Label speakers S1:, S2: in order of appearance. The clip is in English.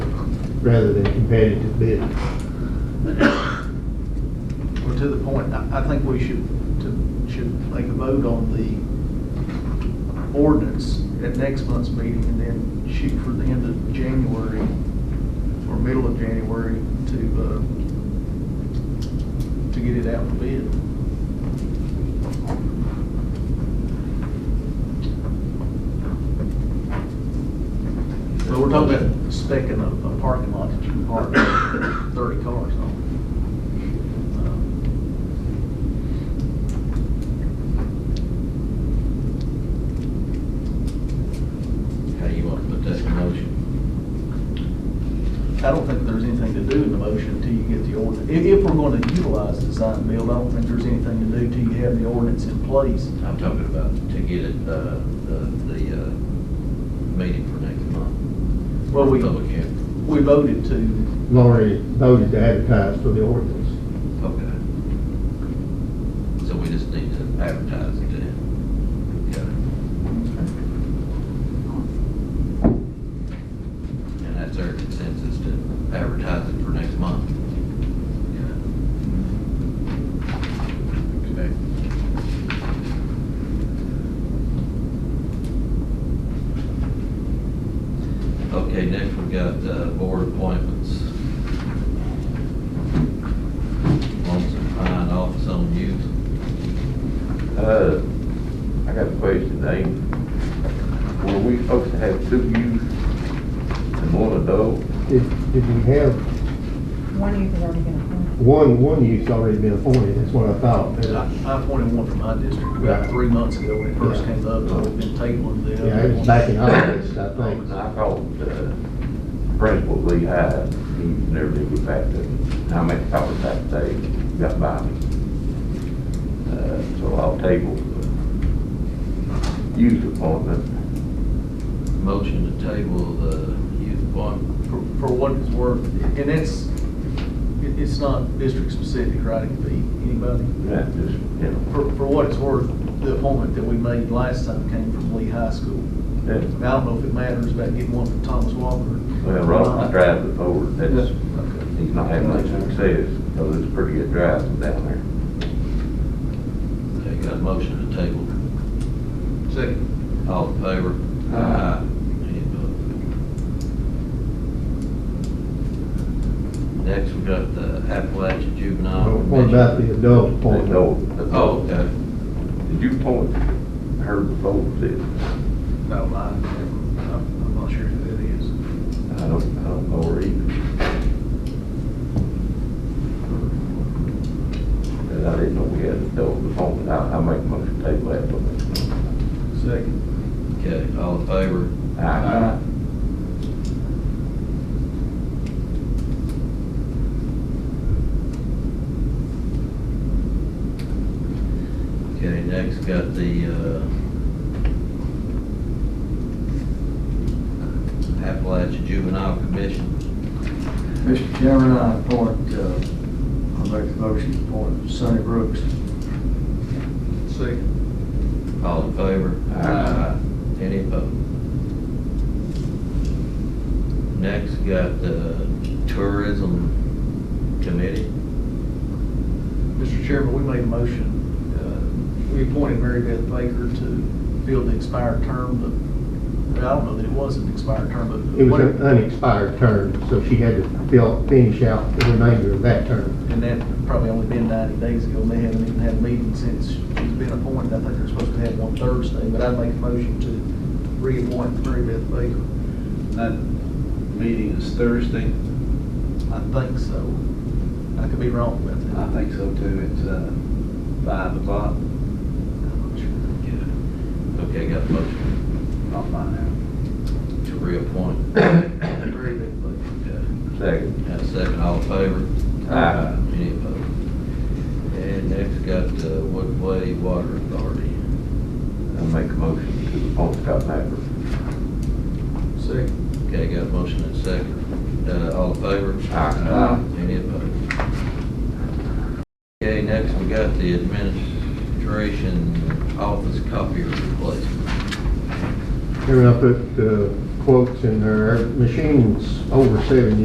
S1: rather than competitive bidding.
S2: Well, to the point, I, I think we should, to- should make a vote on the ordinance at next month's meeting and then shoot for the end of January or middle of January to, uh, to get it out for bid. But we're talking about specking a, a parking lot that you can park thirty cars on. Um,
S3: How you want to put that in motion?
S2: I don't think there's anything to do in the motion until you get the ordinance. If, if we're gonna utilize design and build, I don't think there's anything to do till you have the ordinance in place.
S3: I'm talking about to get it, uh, the, the, uh, meeting for next month.
S2: Well, we,
S3: Public hearing.
S2: we voted to,
S1: Lori voted to advertise for the ordinance.
S3: Okay. So we just need to advertise it then. Okay. And that's our consensus to advertise it for next month. Okay. Okay. Okay, next we got uh, board appointments. One's a fine office on youth.
S4: Uh, I got a question, Amy. Were we supposed to have two youth and one adult?
S1: Did, did we have,
S5: One of you has already been appointed.
S1: one, one youth's already been appointed, that's what I thought. uh,
S2: I I appointed one from my district
S1: Right.
S2: about three months ago when it first
S1: Yeah.
S2: came up, so we've been tabling the other.
S1: Yeah, it was
S2: one.
S1: back in August, I think.
S4: And I called, uh, Principal Lee Hyde, he never did get back to me. I made a couple of that day, got by me. Uh, so I'll table the youth appointment.
S3: Motion to table the youth appointment.
S2: for, for what it's worth, and it's, it- it's not district specific, right, it could be anybody.
S4: That just, you know,
S2: For, for what it's worth, the appointment that we made last time came from Lee High School. I
S4: that-
S2: don't know if it matters about getting one from Thomas Walker.
S4: well, Ross
S2: Uh,
S4: drives it forward, that's,
S2: Okay.
S4: he's not having much success, because it's pretty good driving down there.
S3: Okay, got a motion to table. Second. All in favor?
S4: Aye.
S3: Any opposed? Next, we got the Appalachian Juvenile.
S1: Oh, What about the adult
S4: They know
S1: appointment?
S4: it.
S3: Oh, okay.
S4: Did you point her before this?
S2: No, I, I'm not sure who that is.
S4: I don't, I don't know her either. And I didn't know we had a dog before, but I, I make most of the table that one.
S2: Second.
S3: Okay, all in favor?
S4: I,
S3: Okay, next got the, uh, Appalachian Juvenile Commission.
S6: Mr. Chairman, I appoint, uh, I make a motion to appoint Sonny Brooks.
S2: Second.
S3: All in favor? Uh,
S4: Aye.
S3: Any opposed? Next got the Tourism Committee.
S2: Mr. Chairman, we made a motion, uh, we appointed Mary Beth Baker to fill the expired term, but I don't know that it was an expired term, but.
S1: It was an unexpired term, so she had to fill, finish out the remainder of that term.
S2: And that probably only been ninety days ago, and they haven't even had a meeting since she's been appointed. I think they're supposed to have one Thursday, but I'd make a motion to reappoint Mary Beth Baker.
S7: That meeting is Thursday.
S2: I think so. I could be wrong about that.
S7: I think so too. It's uh, five o'clock.
S2: I'm not sure.
S3: Okay, got a motion
S7: I'll find out.
S3: to reappoint.
S2: Mary Beth Baker.
S3: Okay.
S4: second.
S3: Got a second, all in favor?
S4: Aye.
S3: Any opposed? And next got the Woodway Water Authority.
S4: I make a motion to appoint Scott Maverick.
S2: Second.
S3: Okay, got a motion and second. Uh, all in favor?
S4: Aye.
S3: Any opposed? Okay, next we got the administration office copier replacement.
S1: Chairman, I put uh, quotes in there, machines over seven